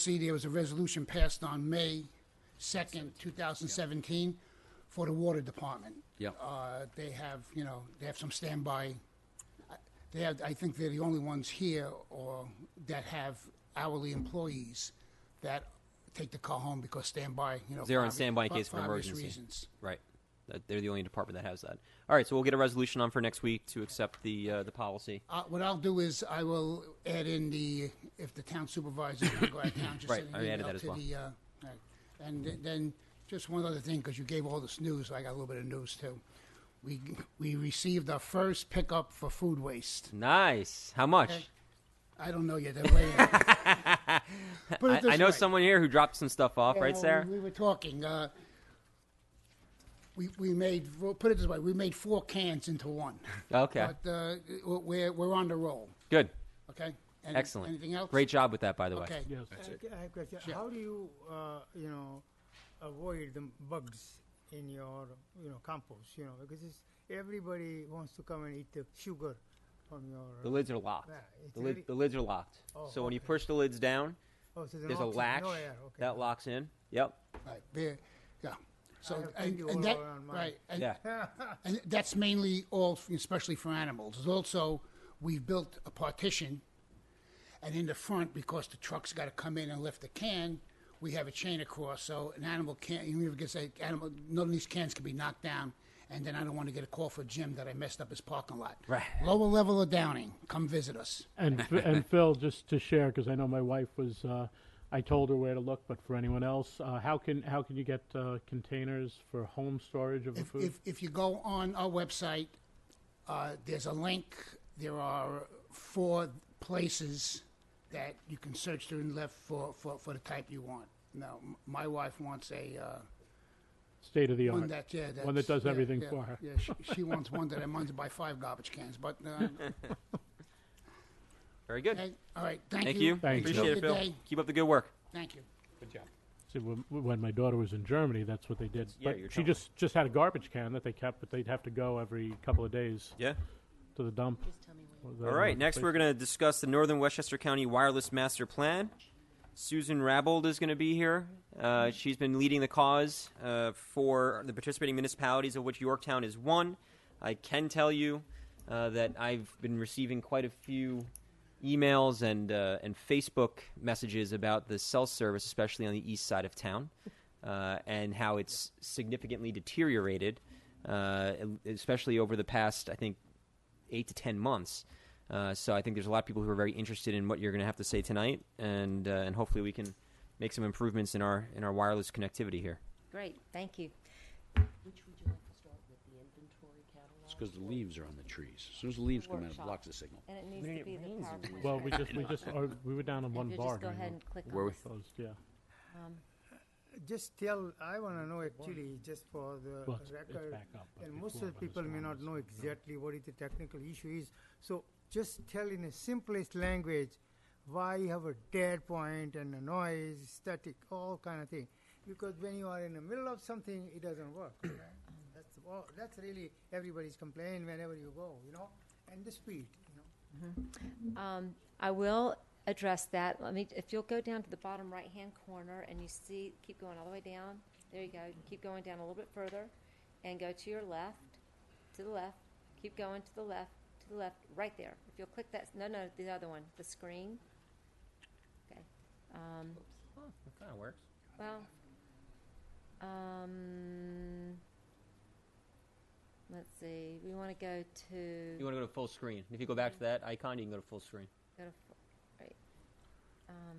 see, there was a resolution passed on May 2nd, 2017, for the Water Department. Yep. Uh, They have, you know, they have some standby, they have, I think they're the only ones here or that have hourly employees that take the car home because standby, you know. They're for on obvi- standby in for- case of for an obvious emergency. reasons. Right. That- They're the only department that has that. All right, so we'll get a resolution on for next week to accept the, uh, the policy. Uh, What I'll do is I will add in the, if the town supervisor can go out of town, just Right, send I an added email that as to well. the, uh, right. and th- then, just one other thing, because you gave all this news, I got a little bit of news too. We, we received our first pickup for food waste. Nice. How much? Okay. I don't know yet, they're waiting. Put it I, I this know way. someone here who dropped some stuff off, Yeah, right, well, Sarah? We, we were talking. Uh, we we made we'll put it this way: we made four cans into one. Okay. But uh, we're we're on the roll. Good. Okay. Any- Excellent. Anything else? Great job with that, by the way. Okay. I have a question. Sure. How do you, uh, you know, avoid the bugs in your, you know, compost? You know, because it's, everybody wants to come and eat the sugar from The your. lids are locked. Yeah, it's The, lid, really- the lids are locked. Oh, so when you okay. push the lids down, Oh, so there's a oxy- latch No air. Okay. that locks in. Yep. Right. There. Yeah. So have and, plenty and all that around mine. right and, Yeah. and that's mainly all especially for animals. There's also we've built a partition, and in the front because the truck's got to come in and lift the can. We have a chain across, so an animal can't. You never get say animal. None of these cans can be knocked down, and then I don't want to get a call for Jim that I messed up his parking lot. Right. Lower level of Downing, come visit us. And Ph- and Phil, just to share, because I know my wife was, uh, I told her where to look, but for anyone else, uh, how can how can you get uh, containers for home storage of the If, food? if, if you go on our website, uh, there's a link. There are four places that you can search through and left for, for, for the type you want. Now, m- my wife wants a uh, State of the one art. that yeah that's, One that does yeah, everything yeah, for her. Yeah, she, she wants one that I'm to buy five garbage cans. But uh, Very good. okay, all right, thank, Thank you. Thank you. Appreciate it, Have a good Phil. day. Keep up the good work. Thank you. See, when, when my daughter was in Germany, that's what they did. Yeah, but you're she telling just just had a garbage can that they kept, but they'd have to go every couple of days Yeah. to the dump. All right, next we're going to discuss the Northern Westchester County Wireless Master Plan. Susan Rabold is going to be here. Uh, she's been leading the cause uh, for the participating municipalities, of which Yorktown is one. I can tell you uh, that I've been receiving quite a few emails and uh, and Facebook messages about the cell service, especially on the east side of town, uh, and how it's significantly deteriorated, uh, especially over the past, I think, eight to ten months. Uh, so I think there's a lot of people who are very interested in what you're going to have to say tonight, and uh, and hopefully we can make some improvements in our in our wireless connectivity here. Great, thank you. Which would you like to start with, the inventory catalog? It's because the leaves are on the trees. As soon as the leaves come out, it Workshop. blocks the signal. And it needs to be the PowerPoint. Well, we just we just or, we were down on one You bar. just go during ahead the- and click Were on we? it. closed, yeah. Just tell. I want to know actually, just for the Well, it's- it's record, back up, but and before most of when the it's people may on, not it's know exactly what is the technical issue is. So just tell in the simplest language why you have a dead point and a noise, static, all kind of thing. Because when you are in the middle of something, it doesn't work. right? that's all, that's really everybody's complaint whenever you go, you know, and the speed, you know. Um, I will address that. Let me, if you'll go down to the bottom right-hand corner and you see, keep going all the way down. There you go. Keep going down a little bit further and go to your left, to the left. Keep going to the left, to the left, right there. If you'll click that, no, no, the other one, the screen. Okay. Um, Oh, That kind of works. Well, um, let's see. We want to go You to want to go to full screen? If you go back to that icon, you can go to full screen. go to fo- right. Um,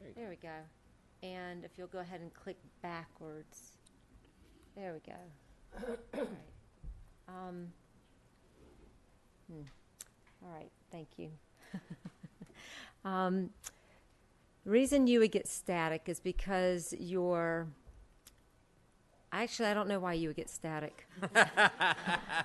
There you go. there we go. And if you'll go ahead and click backwards, there we go. All right. Um, hmm. All right. Thank you. um, the reason you would get static is because your Actually, I don't know why you would get static.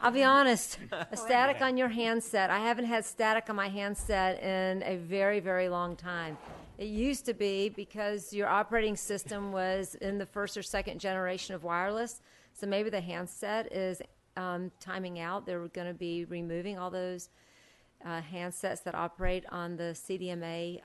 I'll be honest. A static on your handset. I haven't had static on my handset in a very, very long time. It used to be because your operating system was in the first or second generation of wireless. So maybe the handset is um, timing out. They're going to be removing all those uh, handsets that operate on the CDMA